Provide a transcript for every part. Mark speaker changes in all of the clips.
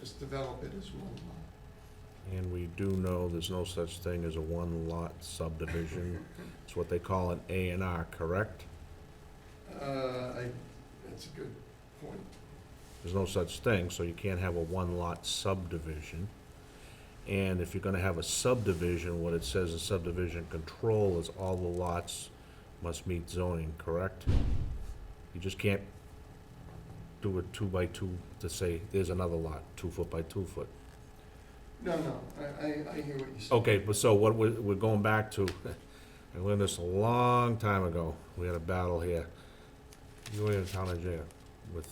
Speaker 1: just develop it as one lot.
Speaker 2: And we do know there's no such thing as a one-lot subdivision. It's what they call an A and R, correct?
Speaker 1: Uh, I, that's a good point.
Speaker 2: There's no such thing, so you can't have a one-lot subdivision. And if you're gonna have a subdivision, what it says in subdivision control is all the lots must meet zoning, correct? You just can't do a two-by-two to say, there's another lot, two foot by two foot.
Speaker 1: No, no, I, I, I hear what you're saying.
Speaker 2: Okay, but so what we're, we're going back to, I learned this a long time ago. We had a battle here. You were in town engineer with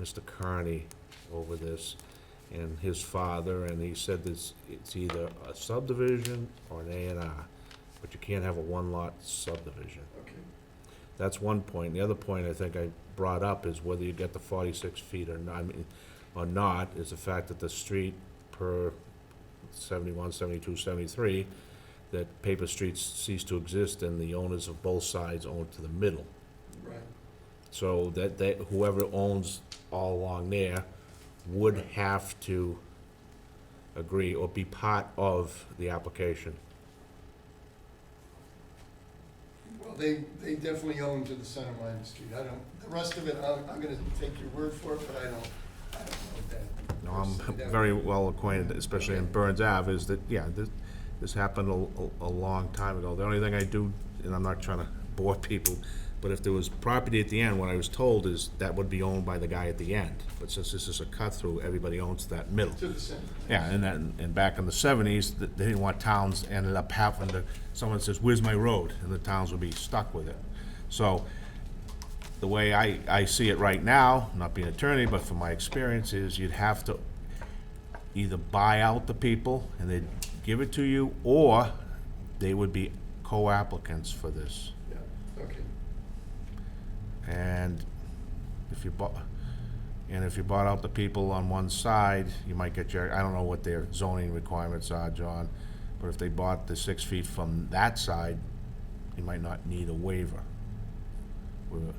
Speaker 2: Mr. Carney over this and his father, and he said this, it's either a subdivision or an A and R, but you can't have a one-lot subdivision.
Speaker 1: Okay,
Speaker 2: That's one point. The other point I think I brought up is whether you get the forty-six feet or not, I mean, or not, is the fact that the street per 71, 72, 73, that paper streets cease to exist and the owners of both sides own to the middle.
Speaker 1: right.
Speaker 2: So that, that whoever owns all along there would have to agree or be part of the application.
Speaker 1: Well, they, they definitely own to the center line of the street. I don't, the rest of it, I'm, I'm gonna take your word for it, but I don't, I don't know that.
Speaker 2: No, I'm
Speaker 1: personally. That
Speaker 2: very
Speaker 1: would-
Speaker 2: well acquainted, especially in Burns Ave, is that, yeah, this, this happened a, a- a long time ago. The only thing I do, and I'm not trying to bore people, but if there was property at the end, what I was told is that would be owned by the guy at the end. But since this is a cut-through, everybody owns that middle.
Speaker 1: To the center.
Speaker 2: Yeah, and that, and back in the seventies, th- they didn't want towns ended up having to, someone says, where's my road? And the towns would be stuck with it. So, the way I, I see it right now, not being an attorney, but from my experience, is you'd have to either buy out the people and they'd give it to you, or they would be co-applicants for this.
Speaker 1: Yeah, okay.
Speaker 2: And if you bought, and if you bought out the people on one side, you might get your, I don't know what their zoning requirements are, John, but if they bought the six feet from that side, you might not need a waiver. With a-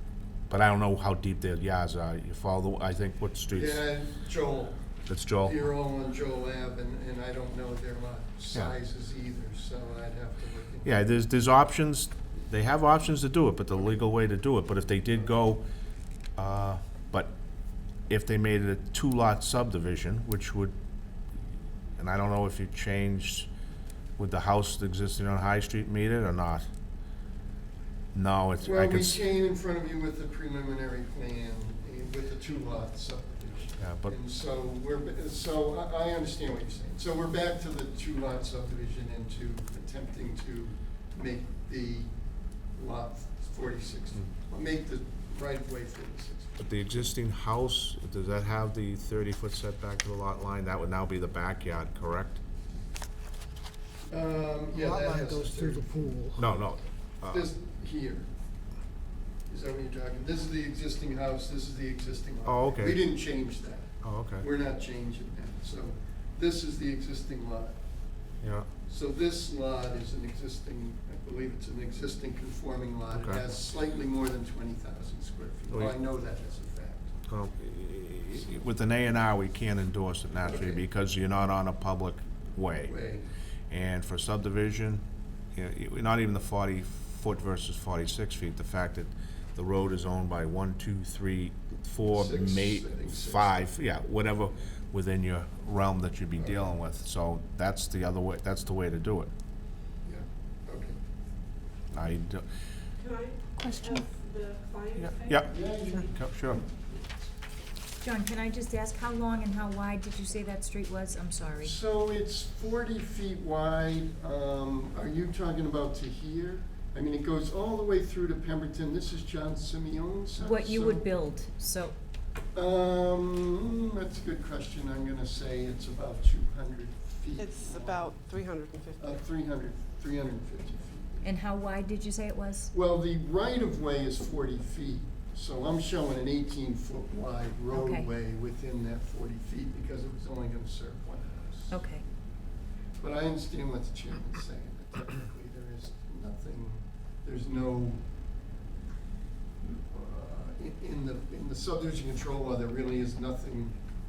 Speaker 2: But I don't know how deep their yards are. You follow, the I think, what streets?
Speaker 1: Yeah, Joel,
Speaker 2: That's Joel.
Speaker 1: you're all on Joel Ave, and, and I don't know their lot sizes either, so I'd have to look into
Speaker 2: Yeah, there's, there's options, they have options to do it, but the legal way to do it, but if they did go, uh, but if they made it a two-lot subdivision, which would, and I don't know if you changed, would the house existing on High Street meet it or not? No, it's, I
Speaker 1: Well,
Speaker 2: can,
Speaker 1: we
Speaker 2: s-
Speaker 1: came in front of you with the preliminary plan, eh, with the two lot subdivision.
Speaker 2: yeah, but,
Speaker 1: And so we're, ba- so I, I understand what you're saying. So we're back to the two lot subdivision and to attempting to make the lot forty-six,
Speaker 2: Hmm.
Speaker 1: or make the right of way forty-six.
Speaker 2: but the existing house, does that have the thirty-foot setback to the lot line? That would now be the backyard, correct?
Speaker 1: Um, yeah,
Speaker 3: Lot
Speaker 1: that
Speaker 3: line
Speaker 1: has
Speaker 3: goes
Speaker 1: to-
Speaker 3: through the pool.
Speaker 2: No, no. uh,
Speaker 1: This here. Is that what you're talking? This is the existing house, this is the existing lot.
Speaker 2: Oh, okay.
Speaker 1: We didn't change that.
Speaker 2: Oh, okay,
Speaker 1: We're not changing that. So this is the existing lot.
Speaker 2: yeah,
Speaker 1: So this lot is an existing, I believe it's an existing conforming lot. It
Speaker 2: Okay.
Speaker 1: has slightly more than twenty thousand square feet.
Speaker 2: Oh, yeah.
Speaker 1: Well, I know that as a fact.
Speaker 2: Well, i- i- Uh, With an A and R, we can't endorse it naturally
Speaker 1: Okay.
Speaker 2: because you're not on a public way.
Speaker 1: Way,
Speaker 2: And for subdivision, you know, it- not even the forty foot versus forty-six feet, the fact that the road is owned by one, two, three, four,
Speaker 1: Six,
Speaker 2: may,
Speaker 1: I think six.
Speaker 2: five, yeah, whatever within your realm that you'd be dealing with. So that's the other way, that's the way to do it.
Speaker 1: yeah, okay.
Speaker 2: I, do-
Speaker 4: Can I
Speaker 5: Question.
Speaker 4: have the client? say?
Speaker 2: yeah,
Speaker 1: Yeah,
Speaker 2: co- sure.
Speaker 5: John, can I just ask, how long and how wide did you say that street was? I'm sorry.
Speaker 1: So it's forty feet wide. Um, are you talking about to here? I mean, it goes all the way through to Pemberton. This is John Simeon's house.
Speaker 5: What you
Speaker 1: so-
Speaker 5: would build, so,
Speaker 1: Um, that's a good question. I'm gonna say it's about two hundred feet.
Speaker 4: It's about 350.
Speaker 1: Uh, three hundred, three hundred and fifty feet.
Speaker 5: and how wide did you say it was?
Speaker 1: Well, the right-of-way is forty feet, so I'm showing an eighteen-foot wide roadway within that forty feet because it was only gonna serve one house.
Speaker 5: Okay,
Speaker 1: But I understand what the chairman's saying, that technically there is nothing, there's no, uh, in- in the, in the subdivision control law, there really is nothing